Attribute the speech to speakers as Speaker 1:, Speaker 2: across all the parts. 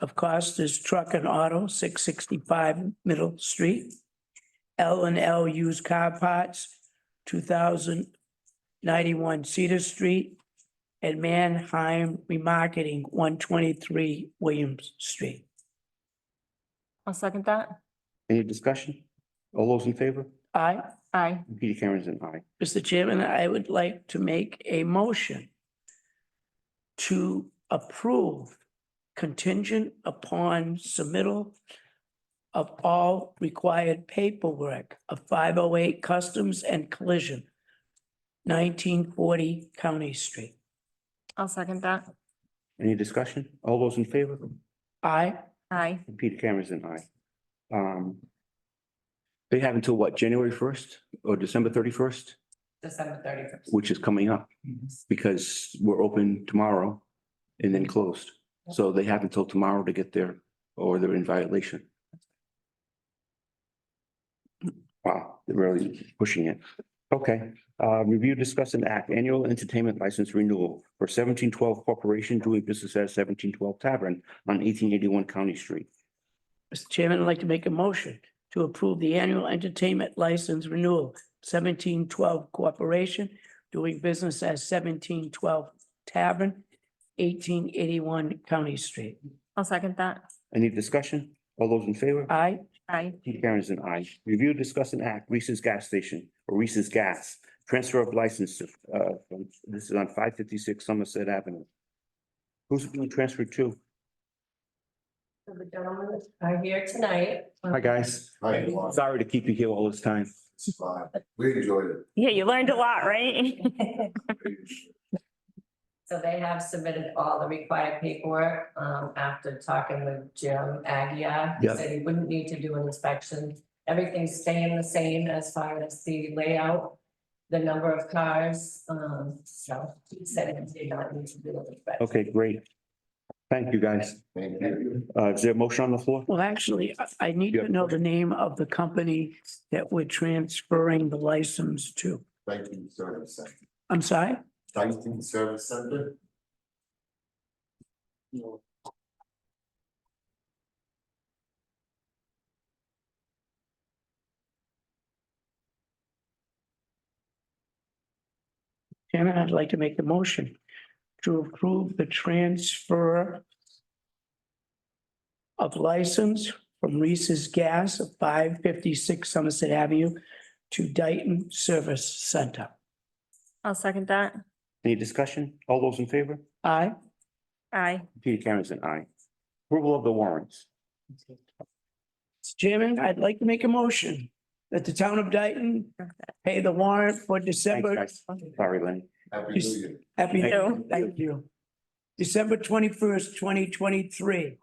Speaker 1: of Costas Truck and Auto, six sixty-five Middle Street. L and L Used Car Parts, two thousand ninety-one Cedar Street. And Manheim Remarketing, one twenty-three Williams Street.
Speaker 2: I'll second that.
Speaker 3: Any discussion? All those in favor?
Speaker 1: I,
Speaker 2: Aye.
Speaker 3: Peter Cameron's an aye.
Speaker 1: Mr. Chairman, I would like to make a motion to approve contingent upon submittal of all required paperwork of five oh eight Customs and Collision, nineteen forty County Street.
Speaker 2: I'll second that.
Speaker 3: Any discussion? All those in favor?
Speaker 1: Aye.
Speaker 2: Aye.
Speaker 3: Peter Cameron's an aye. Um. They have until what, January first or December thirty-first,
Speaker 4: December thirty first.
Speaker 3: which is coming up because we're open tomorrow and then closed. So they have until tomorrow to get there or they're in violation. Wow, they're really pushing it. Okay, uh, review, discuss and act annual entertainment license renewal for seventeen twelve Corporation doing business as seventeen twelve Tavern on eighteen eighty-one County Street.
Speaker 1: Mr. Chairman, I'd like to make a motion to approve the annual entertainment license renewal seventeen twelve Corporation doing business as seventeen twelve Tavern, eighteen eighty-one County Street.
Speaker 2: I'll second that.
Speaker 3: Any discussion? All those in favor?
Speaker 1: Aye.
Speaker 2: Aye.
Speaker 3: Pete Karen's an aye. Review, discuss and act Reese's Gas Station or Reese's Gas. Transfer of license to, uh, from- this is on five fifty-six Somerset Avenue. Who's it being transferred to?
Speaker 4: The gentlemen are here tonight. um,
Speaker 3: Hi, guys.
Speaker 5: Hi, everyone.
Speaker 3: Sorry to keep you here all this time.
Speaker 5: It's fine. We enjoyed it.
Speaker 2: Yeah, you learned a lot, right?
Speaker 4: So they have submitted all the required paperwork, um, after talking with Jim Agia. He
Speaker 3: Yeah.
Speaker 4: Said he wouldn't need to do an inspection. Everything's staying the same as far as the layout, the number of cars, um, so he said he did not need to do an inspection.
Speaker 3: Okay, great. Thank you, guys.
Speaker 5: Thank you.
Speaker 3: Uh, is there a motion on the floor?
Speaker 1: Well, actually, I- I need to
Speaker 3: Yeah.
Speaker 1: know the name of the company that we're transferring the license to.
Speaker 5: Banking Service Center.
Speaker 1: I'm sorry?
Speaker 5: Banking Service Center.
Speaker 1: Chairman, I'd like to make the motion to approve the transfer of license from Reese's Gas of five fifty-six Somerset Avenue to Dayton Service Center.
Speaker 2: I'll second that.
Speaker 3: Any discussion? All those in favor?
Speaker 1: Aye.
Speaker 2: Aye.
Speaker 3: Peter Karen's an aye. Approval of the warrants.
Speaker 1: Mr. Chairman, I'd like to make a motion that the town of Dayton pay the warrant for
Speaker 3: Thanks,
Speaker 1: December.
Speaker 3: guys. Sorry, Lenny.
Speaker 5: Happy New Year.
Speaker 1: Happy New
Speaker 3: Thank
Speaker 1: Year.
Speaker 2: you.
Speaker 1: Thank you. December twenty-first, twenty twenty-three.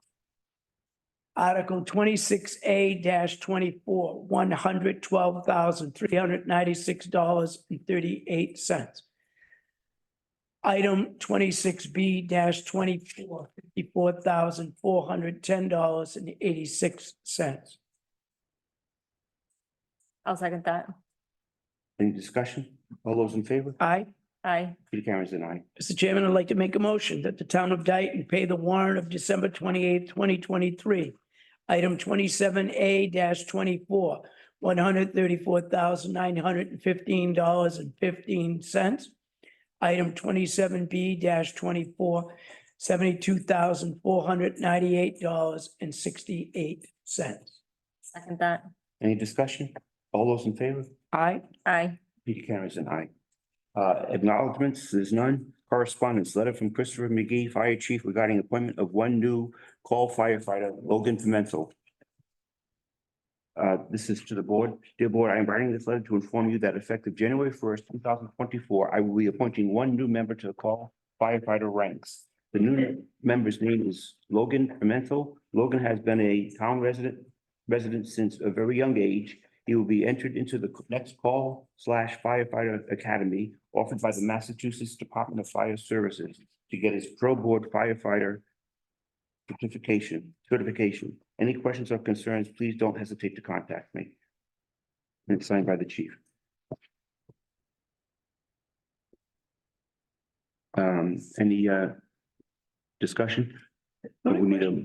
Speaker 1: Article twenty-six A twenty-four, one hundred twelve thousand, three hundred ninety-six dollars and thirty-eight cents. Item twenty-six B twenty-four, fifty-four thousand, four hundred ten dollars and eighty-six cents.
Speaker 2: I'll second that.
Speaker 3: Any discussion? All those in favor?
Speaker 1: Aye.
Speaker 2: Aye.
Speaker 3: Peter Karen's an aye.
Speaker 1: Mr. Chairman, I'd like to make a motion that the town of Dayton pay the warrant of December twenty-eighth, twenty twenty-three. Item twenty-seven A twenty-four, one hundred thirty-four thousand nine hundred and fifteen dollars and fifteen cents. Item twenty-seven B 24 twenty-four, seventy-two thousand four hundred ninety-eight dollars and sixty-eight cents.
Speaker 2: Second that.
Speaker 3: Any discussion? All those in favor?
Speaker 1: Aye.
Speaker 2: Aye.
Speaker 3: Peter Cameron's an aye. Uh, acknowledgements, there's none. Correspondence, letter from Christopher McGee, Fire Chief regarding appointment of one new call firefighter, Logan Pimental. Uh, this is to the board. Dear board, I am writing this letter to inform you that effective January first, two thousand twenty-four, I will be appointing one new member to the call firefighter ranks. The new member's name is Logan Pimental. Logan has been a town resident, resident since a very young age he will be entered into the next call slash firefighter academy offered by the Massachusetts Department of Fire Services to get his pro board firefighter certification, certification. Any questions or concerns, please don't hesitate to contact me. And it's signed by the chief. Um, any, uh, discussion? But we need a